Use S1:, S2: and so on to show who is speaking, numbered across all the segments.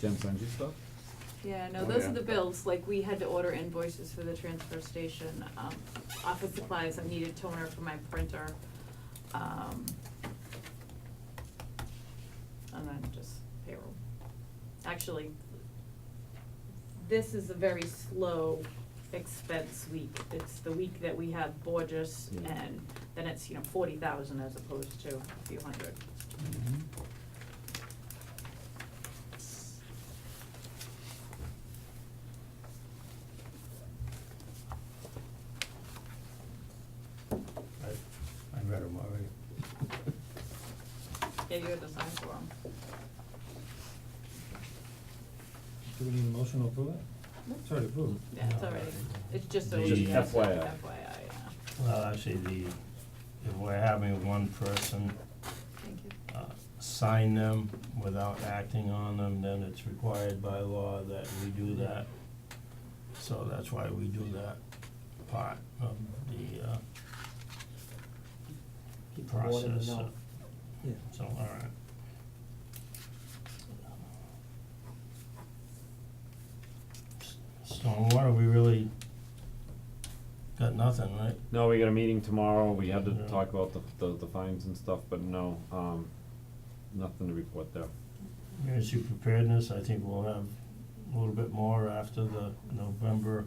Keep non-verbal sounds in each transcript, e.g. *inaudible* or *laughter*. S1: Jen signs your stuff?
S2: Yeah, no,
S3: Oh,
S2: those
S3: yeah.
S2: are the bills, like, we had to order invoices for the transfer station, um, office supplies, I needed toner for my printer, um, and then just payroll. Actually, this is a very slow expense week, it's the week that we have Borges,
S1: Yeah.
S2: and then it's, you know, forty thousand as opposed to a few hundred.
S3: I, I read them already.
S2: Yeah, you have to sign for them.
S4: Do we need a motion to approve it? It's already approved.
S2: Yeah, it's already, it's just so
S1: The-
S2: you guys know,
S1: FYI.
S2: FYI, yeah.
S5: Well, actually, the, if we're having one person
S2: Thank you.
S5: uh, sign them without acting on them, then it's required by law that we do that. So that's why we do that part of the uh,
S4: Keep the board in the
S5: process.
S4: know. Yeah.
S5: So, all right. S- Stormwater, we really got nothing, right?
S1: No, we got a meeting tomorrow, we had to
S5: Yeah.
S1: talk about the, the, the fines and stuff, but no, um, nothing to report there.
S5: Emergency preparedness, I think we'll have a little bit more after the November.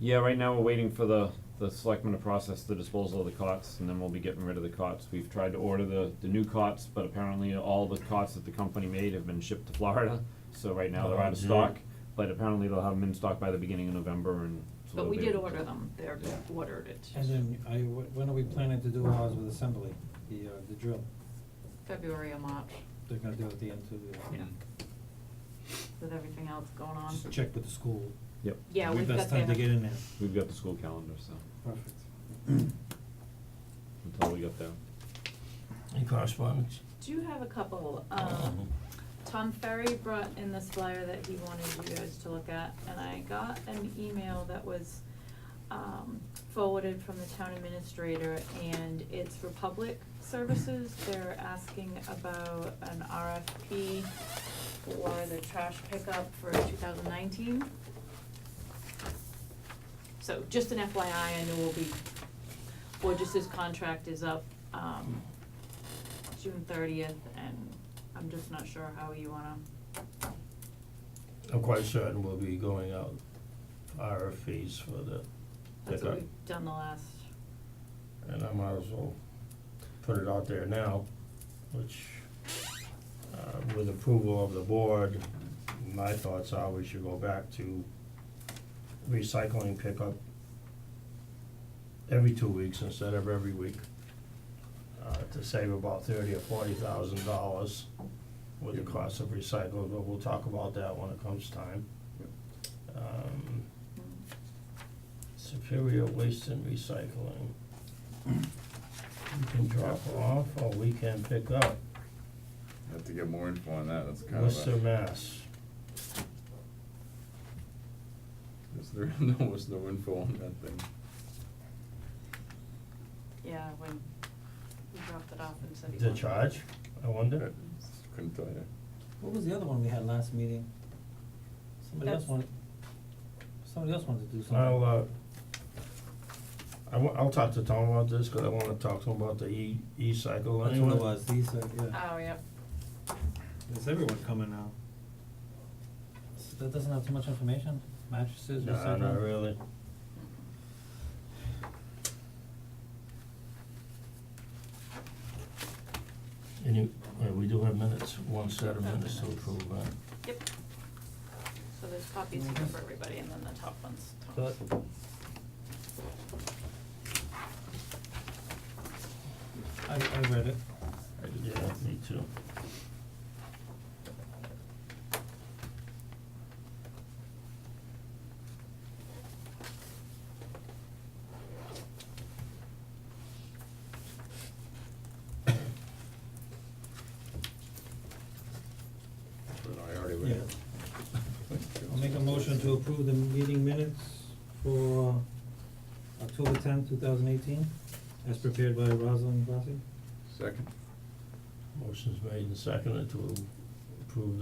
S1: Yeah, right now we're waiting for the, the selectmen to process the disposal of the cots, and then we'll be getting rid of the cots. We've tried to order the, the new cots, but apparently all the cots that the company made have been shipped to Florida, so right now they're out of
S5: Oh, gee.
S1: stock. But apparently they'll have them in stock by the beginning of November, and so
S2: But
S1: they'll
S2: we
S1: be
S2: did
S1: able to-
S2: order them, they're ordered it,
S4: And then, I, wh- when are we planning to do ours with assembly, the, uh, the drill?
S2: February or March,
S4: They're gonna do it at the end of the,
S2: Yeah. with everything else going on.
S4: just check with the school.
S1: Yep,
S2: Um, Yeah, we've got
S4: Best time to
S2: that.
S4: get in there.
S1: we've got the school calendar, so,
S4: Perfect.
S1: until we get there.
S5: Any correspondence?
S2: Do you have a couple,
S5: Uh-huh.
S2: um, Tom Ferry brought in this flyer that he wanted you guys to look at, and I got an email that was, um, forwarded from the town administrator, and it's for public services, they're asking about an RFP for the trash pickup for two thousand nineteen. So just an FYI, I know we'll be, Borges's contract is up, um, June thirtieth, and I'm just not sure how you wanna,
S5: I'm quite certain we'll be going out RFPs for the
S2: that's what
S5: pickup,
S2: we've done the last,
S5: and I might as well put it out there now, which, uh, with approval of the board, my thoughts are we should go back to recycling pickup every two weeks instead of every week, uh, to save about thirty or forty thousand dollars with the cost of recycling, but we'll talk about that when it comes time. Um, Superior Waste and Recycling. You can drop off or we can pick up,
S3: Have to get more info on that, that's kind of
S5: Worcester,
S3: a,
S5: Mass.
S3: is there, *laughs* no, was no info on that thing.
S2: yeah, when we dropped it off and said he
S5: The
S2: wanted- Oh,
S5: charge, I wonder?
S3: I Couldn't tell you.
S4: What was the other one we had last meeting? Somebody else
S2: That's-
S4: wanted, somebody else wanted to do something.
S5: I'll, uh, I wa- I'll talk to Tom about this, cause I wanna talk to him about the E, E-cycle
S4: That's
S5: anyway.
S4: what it was, these are, yeah.
S2: Oh, yep, Uh.
S4: Is everyone coming now? So that doesn't have too much information, mattresses, recycling?
S5: No, not really. And you, uh, we do have minutes, one set of minutes to approve, uh,
S2: yep. So there's copies here for everybody, and then the top ones,
S4: But, I, I read it.
S5: yeah, me too.
S3: But I already read it.
S4: I'll make a motion to approve the meeting minutes for October tenth, two thousand eighteen, as prepared by Rosalind Rossi.
S3: Second.
S5: Motion's made and seconded to approve